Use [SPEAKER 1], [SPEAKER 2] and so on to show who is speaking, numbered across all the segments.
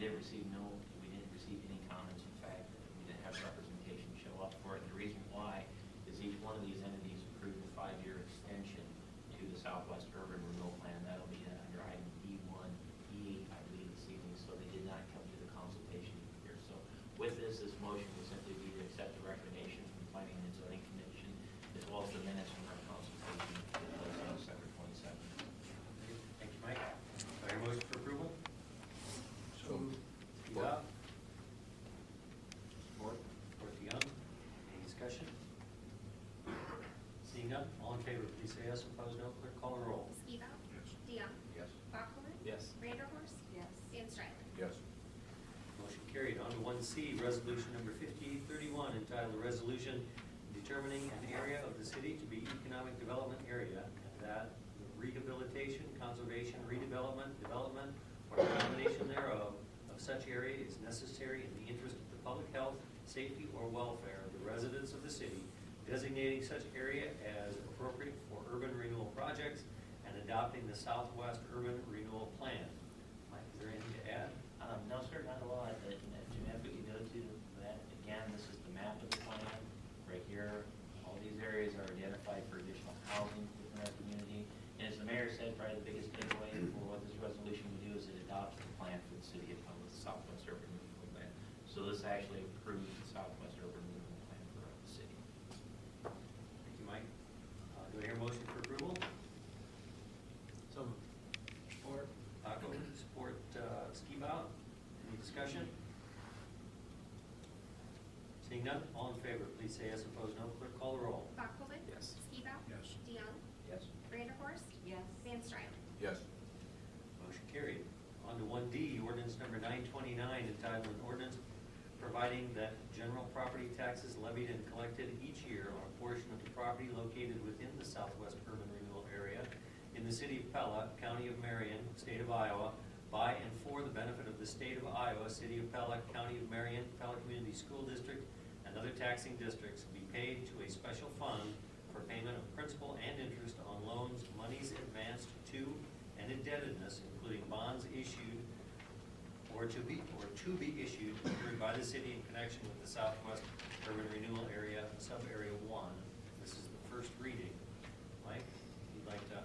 [SPEAKER 1] did receive no, we didn't receive any comments, in fact, we didn't have representation show up for it. The reason why is each one of these entities approved a five-year extension to the Southwest Urban Renewal Plan. That'll be under item D1, E, I believe, this evening, so they did not come to the consultation here. So with this, this motion would simply be to accept the recommendation from the Planning and Zoning Commission, as well as the minutes from our consultation, that was on December 27th.
[SPEAKER 2] Thank you, Mike. Do I hear a motion for approval?
[SPEAKER 3] So moved.
[SPEAKER 2] Eva? Support. Support DeYoung. Any discussion? Seeing none, all in favor, please say yes. Opposed, no. Clerk, call the roll.
[SPEAKER 4] Skibout.
[SPEAKER 3] Yes.
[SPEAKER 4] DeYoung.
[SPEAKER 2] Yes.
[SPEAKER 4] Bachman.
[SPEAKER 1] Yes.
[SPEAKER 4] Vanderhorst. Dan Stryland.
[SPEAKER 3] Yes.
[SPEAKER 2] Motion carried. On to one C, resolution number fifty-eight thirty-one, entitled "A Resolution Determining an Area of the City to be Economic Development Area, and that the rehabilitation, conservation, redevelopment, development, or combination thereof of such area is necessary in the interest of the public health, safety, or welfare of the residents of the city, designating such area as appropriate for urban renewal projects, and adopting the Southwest Urban Renewal Plan. Mike, is there anything to add?
[SPEAKER 1] Um, no, sir, not a lot, but uh, Jeanette, if we could go to that, again, this is the map of the plan, right here. All these areas are identified for additional housing within our community. And as the mayor said, probably the biggest takeaway for what this resolution would do is it adopts the plan for the city of Humboldt, Southwest Urban Renewal Plan. So this actually approves the Southwest Urban Renewal Plan for the city.
[SPEAKER 2] Thank you, Mike. Uh, Do I hear a motion for approval?
[SPEAKER 1] So
[SPEAKER 2] Support. Paco, support uh, Skibout. Any discussion? Seeing none, all in favor, please say yes, opposed no. Clerk, call the roll.
[SPEAKER 4] Bachman.
[SPEAKER 1] Yes.
[SPEAKER 4] Skibout.
[SPEAKER 3] Yes.
[SPEAKER 4] DeYoung.
[SPEAKER 1] Yes.
[SPEAKER 4] Vanderhorst.
[SPEAKER 5] Yes.
[SPEAKER 4] Van Stryland.
[SPEAKER 3] Yes.
[SPEAKER 2] Motion carried. On to one D, ordinance number nine twenty-nine, entitled an ordinance providing that general property taxes levied and collected each year on a portion of the property located within the southwest urban renewal area in the city of Pella, county of Marion, state of Iowa, by and for the benefit of the state of Iowa, city of Pella, county of Marion, Pella Community School District, and other taxing districts be paid to a special fund for payment of principal and interest on loans, monies advanced to and indebtedness, including bonds issued or to be, or to be issued approved by the city in connection with the Southwest Urban Renewal Area, Sub-Area One. This is the first reading. Mike, you'd like to?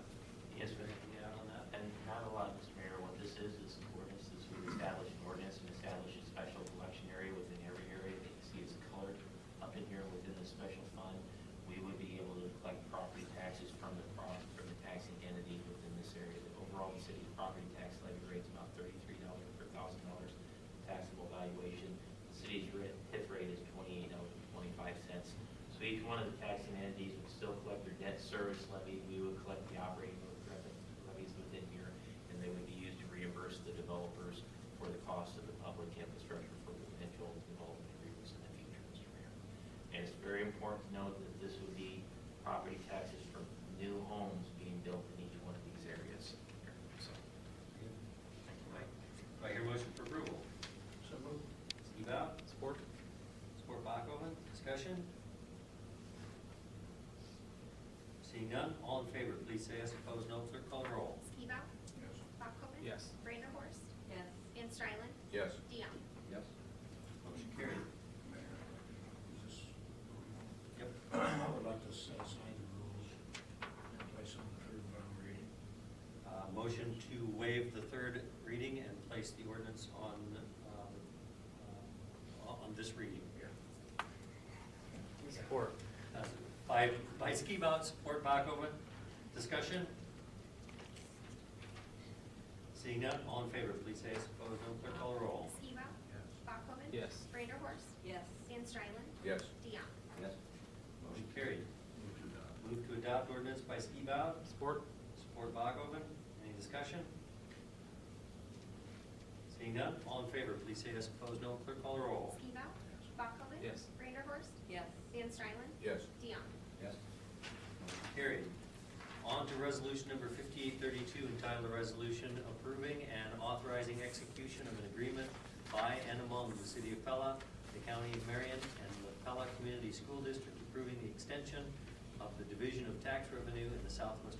[SPEAKER 1] Yes, sir.
[SPEAKER 2] Anything to add on that?
[SPEAKER 1] And not a lot, Mr. Mayor, what this is, is an ordinance, this would establish an ordinance and establish a special collection area within every area that you see is colored up in here within the special fund. We would be able to collect property taxes from the pro from the taxing entity within this area. The Overall, the city's property tax levy rate's about thirty-three dollars per thousand dollars taxable valuation. The city's ri- TIF rate is twenty-eight dollars and twenty-five cents. So each one of the taxing entities would still collect their debt service levy, we would collect the operating revenue levies within here, and they would be used to reimburse the developers for the cost of the public infrastructure for potential development agreements in the future, Mr. Mayor. And it's very important to note that this would be property taxes from new homes being built in each one of these areas. So,
[SPEAKER 2] Thank you, Mike. Do I hear a motion for approval?
[SPEAKER 3] So moved.
[SPEAKER 2] Steve out? Support. Support Bachoven, discussion? Seeing none, all in favor, please say yes, opposed no, clerk call the roll.
[SPEAKER 4] Skibout.
[SPEAKER 3] Yes.
[SPEAKER 4] Bachman.
[SPEAKER 1] Yes.
[SPEAKER 4] Vanderhorst.
[SPEAKER 5] Yes.
[SPEAKER 4] Van Stryland.
[SPEAKER 3] Yes.
[SPEAKER 4] DeYoung.
[SPEAKER 2] Yes. Motion carried.
[SPEAKER 6] Mayor, is this going
[SPEAKER 2] Yep.
[SPEAKER 6] on? I would like to set aside the rules and place on the third final reading.
[SPEAKER 2] Uh, Motion to waive the third reading and place the ordinance on, um, uh, on this reading here. Support. By, by Ski Mount, support Bachoven. Discussion? Seeing none, all in favor, please say yes. Opposed, no. Clerk call the roll.
[SPEAKER 4] Skibout.
[SPEAKER 6] Yes.
[SPEAKER 4] Bachman.
[SPEAKER 1] Yes.
[SPEAKER 4] Vanderhorst.
[SPEAKER 5] Yes.
[SPEAKER 4] Van Stryland.
[SPEAKER 3] Yes.
[SPEAKER 4] DeYoung.
[SPEAKER 2] Yes. Motion carried.
[SPEAKER 6] Move to adopt.
[SPEAKER 2] Move to adopt ordinance by Ski Mount. Support. Support Bachoven. Any discussion? Seeing none, all in favor, please say yes. Opposed, no. Clerk call the roll.
[SPEAKER 4] Skibout.
[SPEAKER 6] Yes.
[SPEAKER 4] Bachman.
[SPEAKER 1] Yes.
[SPEAKER 4] Vanderhorst.
[SPEAKER 5] Yes.
[SPEAKER 4] Van Stryland.
[SPEAKER 3] Yes.
[SPEAKER 4] DeYoung.
[SPEAKER 2] Yes. Motion carried. On to resolution number fifty-eight thirty-two, entitled a resolution approving and authorizing execution of an agreement by and among the city of Pella, the county of Marion, and the Pella Community School District approving the extension of the division of tax revenue in the Southwest